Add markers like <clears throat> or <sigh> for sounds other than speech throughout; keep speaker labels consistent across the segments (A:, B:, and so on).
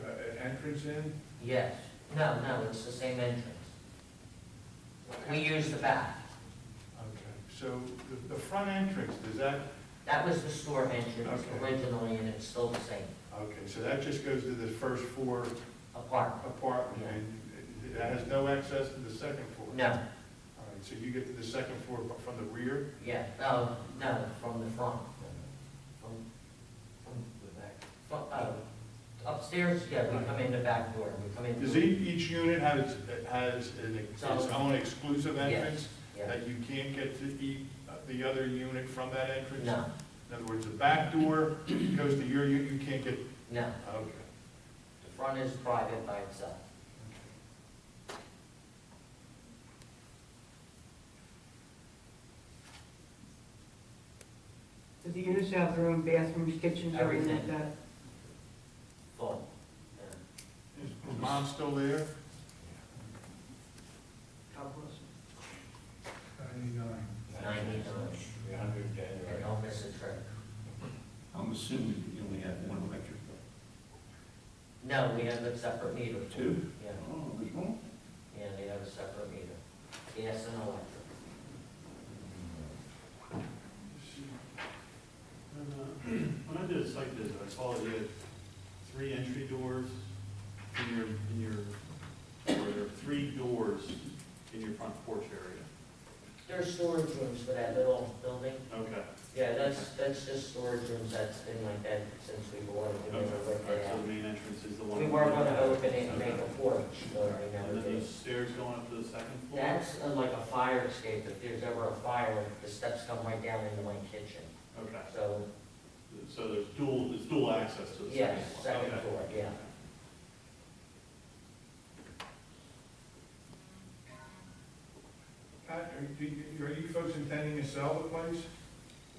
A: uh, entrance in?
B: Yes, no, no, it's the same entrance. We use the back.
A: Okay, so the, the front entrance, does that,
B: That was the store entrance
A: Okay.
B: originally, and it's still the same
A: okay, so that just goes to the first floor
B: apartment.
A: apartment, and that has no access to the second floor?
B: No,
A: All right, so you get to the second floor from the rear?
B: yeah, no, no, from the front. From-
C: The back.
B: from- oh, Upstairs, yeah, we come in the back door, we come in.
A: Does
B: through-
A: each, each unit has, has an- its own exclusive entrance?
B: Yes, yeah,
A: That you can't get to the, the other unit from that entrance?
B: no,
A: In other words, the back door goes to your unit, you can't get,
B: no,
A: okay.
B: the front is private by itself.
D: Does the units have their own bathrooms, kitchens, everything like that?
B: Full. yeah.
A: Is is mom still there?
D: God bless.
E: Ninety-nine.
B: Ninety-nine.
C: Three hundred,
B: And
C: January.
B: don't miss a trick.
F: I'm assuming you only have one electric bill.
B: No, we have a separate meter.
F: Two?
B: Yeah,
F: Oh, there's one?
B: yeah, they have a separate meter. Gas and electric.
G: uh, <clears throat> When I did a site visit, I saw that you had three entry doors in your, in your, or there are three doors in your front porch area.
B: There's storage rooms for that little building.
G: Okay.
B: Yeah, that's, that's just storage rooms that's been like that since we bought it. We
G: Okay,
B: never
G: all
B: ripped
G: right,
B: it
G: so
B: out.
G: the main entrance is the one.
B: We were gonna open it and
G: Okay.
B: make a porch, but we
G: And
B: never
G: then
B: did.
G: those stairs going up to the second floor?
B: That's uh, like a fire escape. If there's ever a fire, the steps come right down into my kitchen.
G: Okay,
B: So,
G: so there's dual, there's dual access to the
B: yes,
G: second floor?
B: second
G: Okay.
B: floor, yeah.
A: Pat, are do you, are you folks intending to sell the place?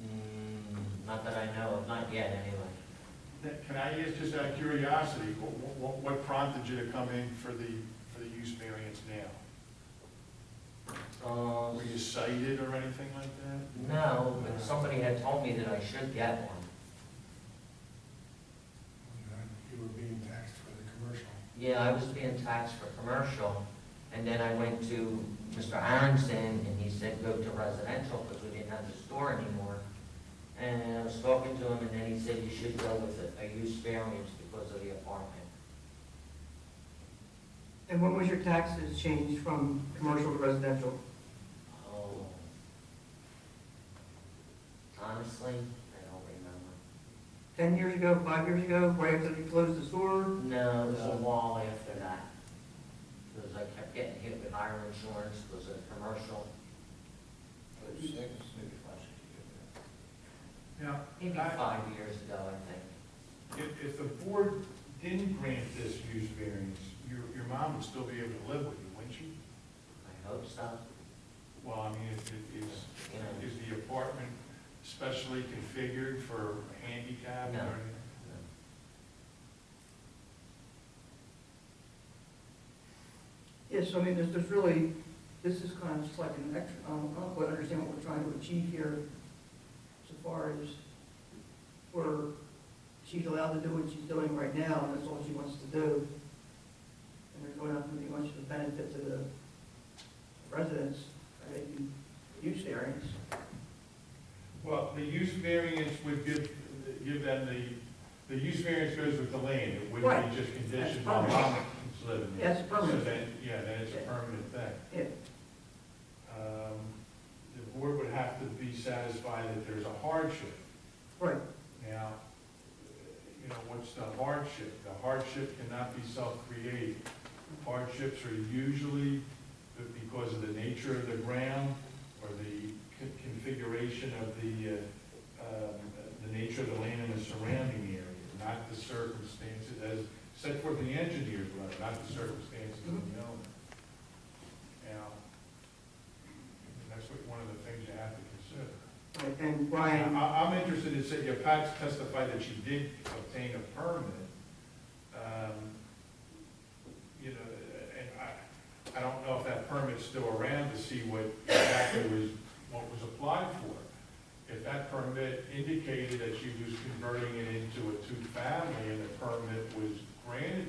B: Mm, Not that I know of, not yet anyway.
A: Can I ask, just out of curiosity, what- what, what prompted you to come in for the, for the use variance now?
B: Um,
A: Were you cited or anything like that?
B: Um, No, but somebody had told me that I should get one.
E: You were being taxed for the commercial.
B: Yeah, I was being taxed for commercial, and then I went to Mr. Aronson, and he said go to residential, because we didn't have the store anymore. And I was talking to him, and then he said you should go with a- a use variance because of the apartment.
D: And when was your taxes changed from commercial to residential?
B: Oh. Honestly, I don't remember.
D: Ten years ago, five years ago, right after they closed the store?
B: No, it was a while after that. Because I kept getting hit with higher insurance, it was a commercial,
C: Put six, maybe five, six.
A: Now,
B: maybe
A: I-
B: five years ago, I think.
A: if, if the board didn't grant this use variance, your, your mom would still be able to live with you, wouldn't she?
B: I hope so,
A: Well, I mean, is- is,
B: you know.
A: is the apartment specially configured for handicap or
B: No.
A: anything?
D: Yes, I mean, there's, there's really, this is kind of just like an extra, I don't, I don't quite understand what we're trying to achieve here so far as where she's allowed to do what she's doing right now, and that's all she wants to do. And there's really not really much of a benefit to the residents, I mean, use variance.
A: Well, the use variance would give, give them the, the use variance goes with the land, it wouldn't
D: Right.
A: be just
D: That's
A: conditioned on
D: permanent.
A: mom living there.
D: That's permanent.
A: So then, yeah, then it's a
D: Yeah.
A: permanent thing.
D: Yeah,
A: Um, The board would have to be satisfied that there's a hardship.
D: right.
A: Now, you know, what's the hardship? The hardship cannot be self-created. Hardships are usually because of the nature of the ground or the con- configuration of the, uh, um, the nature of the land and the surrounding area, not the circumstances as set forth in the engineer's letter, not the circumstances of the owner. Now, that's what, one of the things you have to consider.
D: Right, And
A: I,
D: Brian,
A: I'm interested in saying, yeah, Pat testified that she did obtain a permit. Um, You know, and I, I don't know if that permit's still around to see what exactly was, what was applied for. If that permit indicated that she was converting it into a two-family and the permit was granted